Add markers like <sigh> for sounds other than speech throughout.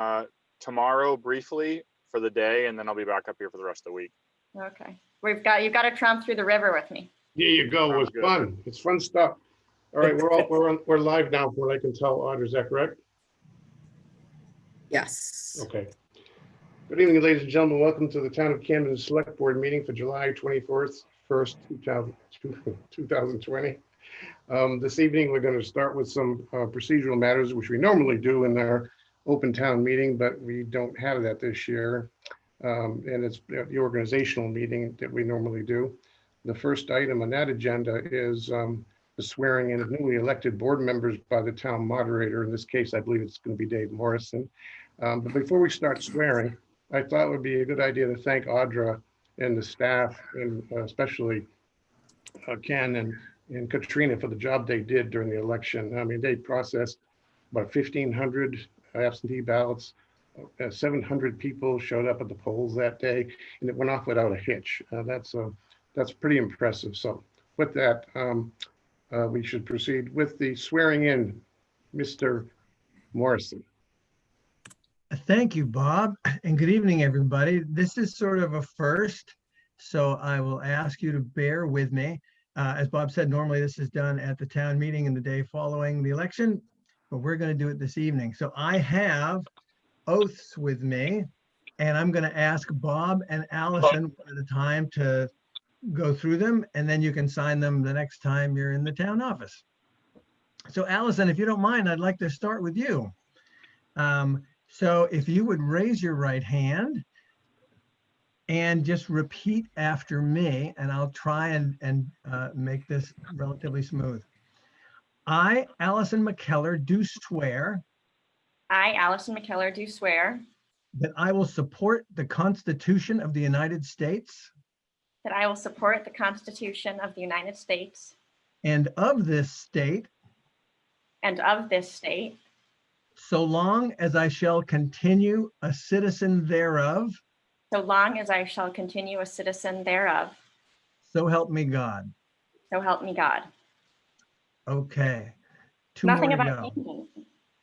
uh, tomorrow briefly for the day, and then I'll be back up here for the rest of the week. Okay, we've got, you've got to tromp through the river with me. There you go. It was Sounds good. fun. It's fun stuff. All right, we're all, we're, on- we're live now, from what I can tell, Audra, is that correct? Yes. Okay. Good evening, ladies and gentlemen. Welcome to the Town of Camden Select Board meeting for July 24th, 1st, 2000 <laughs> 2020. Um, This evening, we're going to start with some uh, procedural matters, which we normally do in our open town meeting, but we don't have that this year. Um, And it's the organizational meeting that we normally do. The first item on that agenda is um, the swearing in of newly elected board members by the town moderator. In this case, I believe it's going to be Dave Morrison. Um, But before we start swearing, I thought it would be a good idea to thank Audra and the staff and uh, especially uh, Ken and, and Katrina for the job they did during the election. I mean, they processed about fifteen hundred absentee ballots. Uh, Seven hundred people showed up at the polls that day and it went off without a hitch. Uh, That's, uh, that's pretty impressive. So with that, um, uh, we should proceed with the swearing in, Mr. Morrison. Thank you, Bob, and good evening, everybody. This is sort of a first, so I will ask you to bear with me. Uh, As Bob said, normally this is done at the town meeting in the day following the election, but we're going to do it this evening. So I have oaths with me, and I'm going to ask Bob and Allison one at a time to go through them, and then you can sign them the next time you're in the town office. So Allison, if you don't mind, I'd like to start with you. Um, so if you would raise your right hand and just repeat after me, and I'll try and, and uh, make this relatively smooth. I, Allison McKellar, do swear I, Allison McKellar, do swear that I will support the Constitution of the United States that I will support the Constitution of the United States and of this state and of this state, so long as I shall continue a citizen thereof, so long as I shall continue a citizen thereof, so help me God. so help me God. Okay. Two Nothing more to about go. thinking,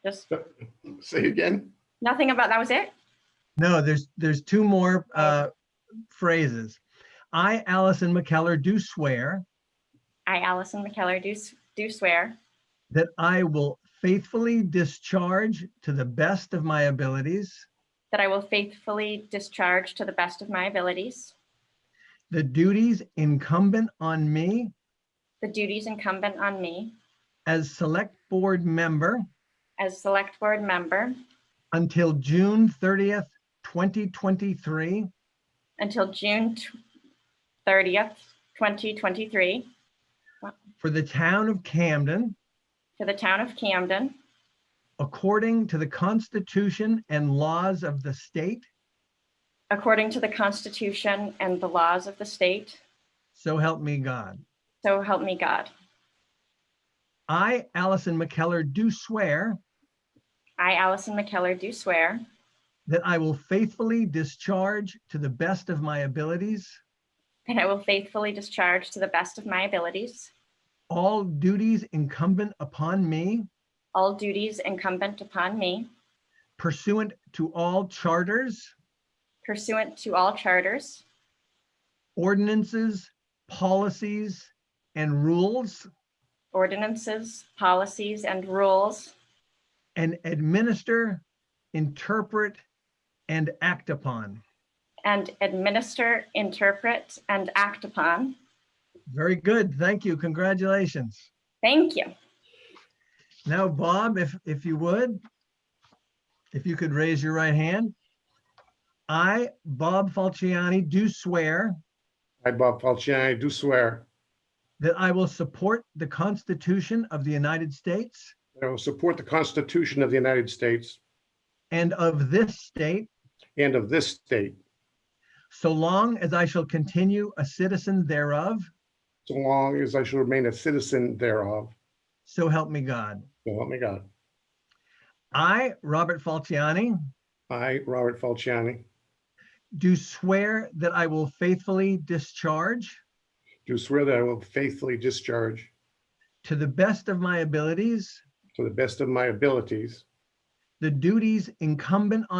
just, Say again? nothing about, that was it? No, there's, there's two more uh, phrases. I, Allison McKellar, do swear I, Allison McKellar, do, s- do swear that I will faithfully discharge to the best of my abilities that I will faithfully discharge to the best of my abilities the duties incumbent on me the duties incumbent on me as Select Board member as Select Board member until June 30th, 2023, until June tw- 30th, 2023, for the town of Camden, to the town of Camden, according to the Constitution and laws of the state, according to the Constitution and the laws of the state, so help me God. so help me God. I, Allison McKellar, do swear I, Allison McKellar, do swear That I will faithfully discharge to the best of my abilities that I will faithfully discharge to the best of my abilities all duties incumbent upon me all duties incumbent upon me pursuant to all charters, pursuant to all charters, ordinances, policies, and rules, ordinances, policies, and rules, and administer, interpret, and act upon. and administer, interpret, and act upon. Very good. Thank you. Congratulations. Thank you. Now, Bob, if, if you would, if you could raise your right hand. I, Bob Falciani, do swear. I, Bob Falciani, do swear That I will support the Constitution of the United States that I will support the Constitution of the United States and of this state, and of this state, so long as I shall continue a citizen thereof, so long as I shall remain a citizen thereof. so help me God. So help me God. I, Robert Falciani, I, Robert Falciani, do swear that I will faithfully discharge, do swear that I will faithfully discharge to the best of my abilities, to the best of my abilities the duties incumbent on.